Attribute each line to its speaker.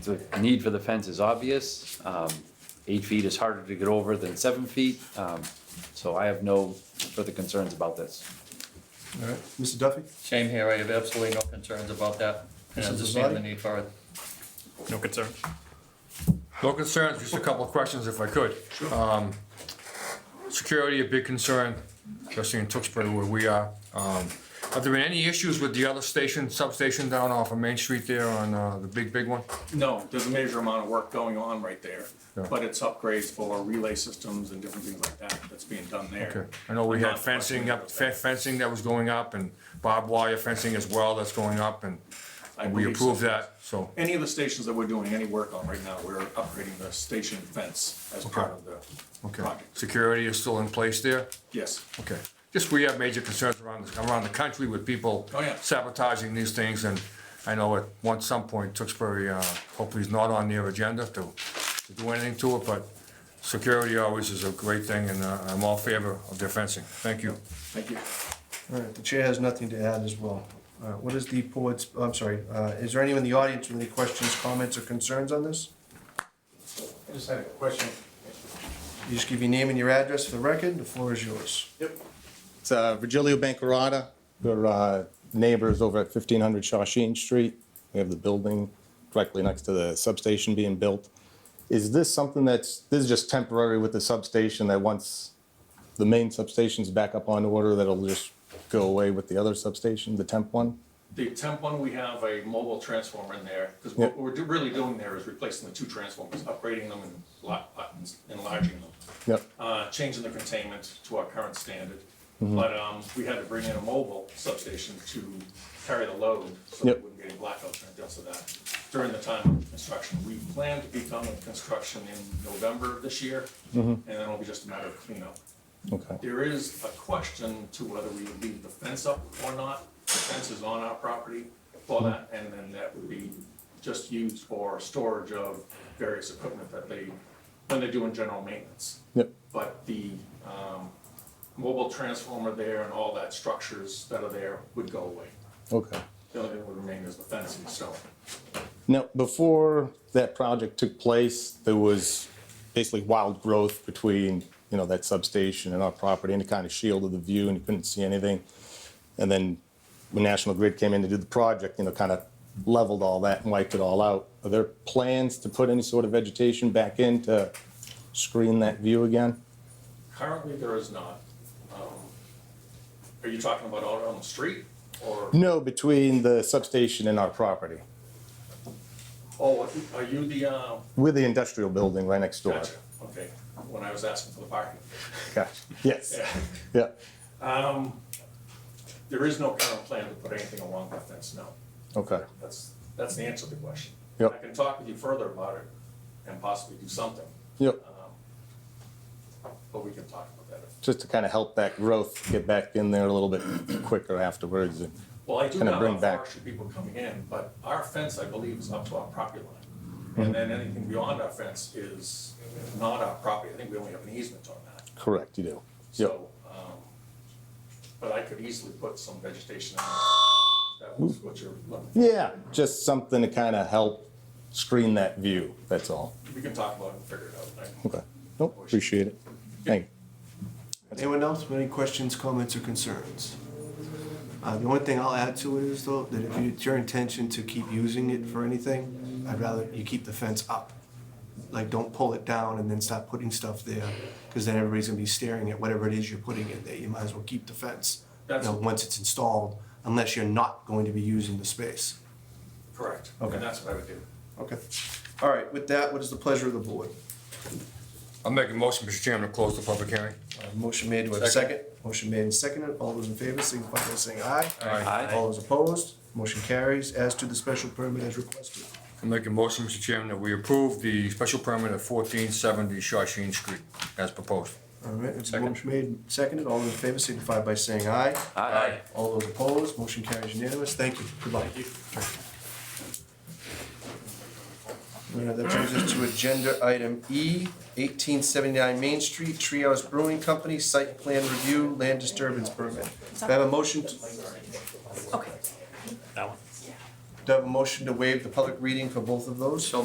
Speaker 1: The need for the fence is obvious. Um, Eight feet is harder to get over than seven feet. Um, So I have no further concerns about this.
Speaker 2: All right, Mr. Duffy?
Speaker 3: Same here, I have absolutely no concerns about that, and
Speaker 2: Mrs.
Speaker 3: I understand the
Speaker 2: Vasari?
Speaker 3: need for it.
Speaker 4: No concern.
Speaker 5: No concerns, just a couple of questions if I could. Um, Security, a big concern, especially in Tewksbury where we are. Um, Have there been any issues with the other station, substation down off of Main Street there on uh, the big, big one?
Speaker 6: No, there's a major amount of work going on right there,
Speaker 5: Yeah.
Speaker 6: but it's upgrades for relay systems and different things like that that's being done
Speaker 5: Okay.
Speaker 6: there.
Speaker 5: I know we
Speaker 6: I'm
Speaker 5: had
Speaker 6: not questioning
Speaker 5: fencing up,
Speaker 6: about that.
Speaker 5: fe- fencing that was going up and barbed wire fencing as well that's going up and
Speaker 6: I
Speaker 5: and we
Speaker 6: believe so.
Speaker 5: approved that, so.
Speaker 6: Any of the stations that we're doing any work on right now, we're upgrading the station fence as part of the
Speaker 5: Okay.
Speaker 6: project.
Speaker 5: Security is still in place there?
Speaker 6: Yes,
Speaker 5: Okay, just we have major concerns around, this- around the country with people
Speaker 6: Oh, yeah.
Speaker 5: sabotaging these things, and I know at one, some point, Tewksbury, uh, hopefully is not on their agenda to, to do anything to it, but security always is a great thing, and, uh, I'm all favor of their fencing, thank you.
Speaker 6: thank you.
Speaker 2: All right, the chair has nothing to add as well. All right, what is the board's, I'm sorry, uh, is there anyone in the audience with any questions, comments, or concerns on this?
Speaker 7: I just had a question.
Speaker 2: You just give your name and your address for the record, the floor is yours.
Speaker 7: It's uh, Virgilio Bancarata. We're uh, neighbors over at 1500 Shawshene Street. We have the building directly next to the substation being built. Is this something that's, this is just temporary with the substation that once the main substation's back up on order, that'll just go away with the other substation, the temp one?
Speaker 6: The temp one, we have a mobile transformer in there, because
Speaker 7: Yeah.
Speaker 6: what we're do- really doing there is replacing the two transformers, upgrading them and lot- lot- enlarging them.
Speaker 7: Yep,
Speaker 6: uh, changing the containment to our current standard. But um, we had to bring in a mobile substation to carry the load, so we
Speaker 7: Yep.
Speaker 6: wouldn't get any blackouts and deals of that. During the time of construction, we plan to be done with construction in November of this year, and then it'll be just a matter of cleanup.
Speaker 7: okay.
Speaker 6: There is a question to whether we would leave the fence up or not. The fence is on our property for that, and then that would be just used for storage of various equipment that they, when they're doing general maintenance
Speaker 7: Yep,
Speaker 6: but the um, mobile transformer there and all that structures that are there would go away.
Speaker 7: okay.
Speaker 6: The only thing that would remain is the fencing, so
Speaker 7: Now, before that project took place, there was basically wild growth between, you know, that substation and our property, and it kind of shielded the view, and you couldn't see anything. And then when National Grid came in to do the project, you know, kind of leveled all that and wiped it all out. Are there plans to put any sort of vegetation back in to screen that view again?
Speaker 6: currently there is not. Um, Are you talking about out on the street or,
Speaker 7: No, between the substation and our property.
Speaker 6: oh, are you the, uh,
Speaker 7: We're the industrial building right next door.
Speaker 6: gotcha, okay, when I was asking for the parking.
Speaker 7: Gotcha. Yes,
Speaker 6: Yeah. Um,
Speaker 7: yeah,
Speaker 6: There is no current plan to put anything along that fence, no.
Speaker 7: okay.
Speaker 6: That's, that's the answer to the question.
Speaker 7: Yep.
Speaker 6: I can talk with you further about it and possibly do something,
Speaker 7: Yep.
Speaker 6: but we can talk about that if
Speaker 7: just to kind of help that growth get back in there a little bit quicker afterwards. and-
Speaker 6: Well, I do
Speaker 7: Kinda
Speaker 6: have
Speaker 7: bring
Speaker 6: our
Speaker 7: back-
Speaker 6: forestry people coming in, but our fence, I believe, is up to our property
Speaker 7: Mm-hmm.
Speaker 6: line. And then anything beyond our fence is not our property. I think we only have an easement on that.
Speaker 7: Correct, you do. Yep,
Speaker 6: So, um, but I could easily put some vegetation in there. That was what you're looking for.
Speaker 7: yeah, just something to kind of help screen that view, that's all.
Speaker 6: We can talk about it and figure it out. I-
Speaker 7: Okay, nope, appreciate it. Thank you.
Speaker 2: Anyone else with any questions, comments, or concerns? Uh, The only thing I'll add to it is though, that if you- it's your intention to keep using it for anything, I'd rather you keep the fence up. Like, don't pull it down and then stop putting stuff there, because then everybody's gonna be staring at whatever it is you're putting in there. You might as well keep the fence. you know,
Speaker 6: That's-
Speaker 2: once it's installed, unless you're not going to be using the space.
Speaker 6: Correct.
Speaker 2: Okay.
Speaker 6: And that's what I would do.
Speaker 2: Okay. All right, with that, what is the pleasure of the board?
Speaker 5: I'll make a motion, Mr. Chairman, to close the public hearing.
Speaker 2: Uh, Motion made, do I have a second? Motion made and seconded, all those in favor, signify by saying aye.
Speaker 5: Aye.
Speaker 2: All those opposed, motion carries as to the special permit as requested.
Speaker 5: I'll make a motion, Mr. Chairman, that we approve the special permit at fourteen seventy Shawshene Street as proposed.
Speaker 2: All right, it's motion made and seconded, all those in favor, signify by saying aye.
Speaker 1: Aye.
Speaker 2: All those opposed, motion carries unanimous, thank you, good luck. Uh, That brings us to agenda item E, eighteen seventy-nine Main Street, Treehouse Brewing Company, site plan review, land disturbance permit. Do I have a motion to
Speaker 8: Okay.
Speaker 4: That one.
Speaker 2: Do I have a motion to waive the public reading for both of those?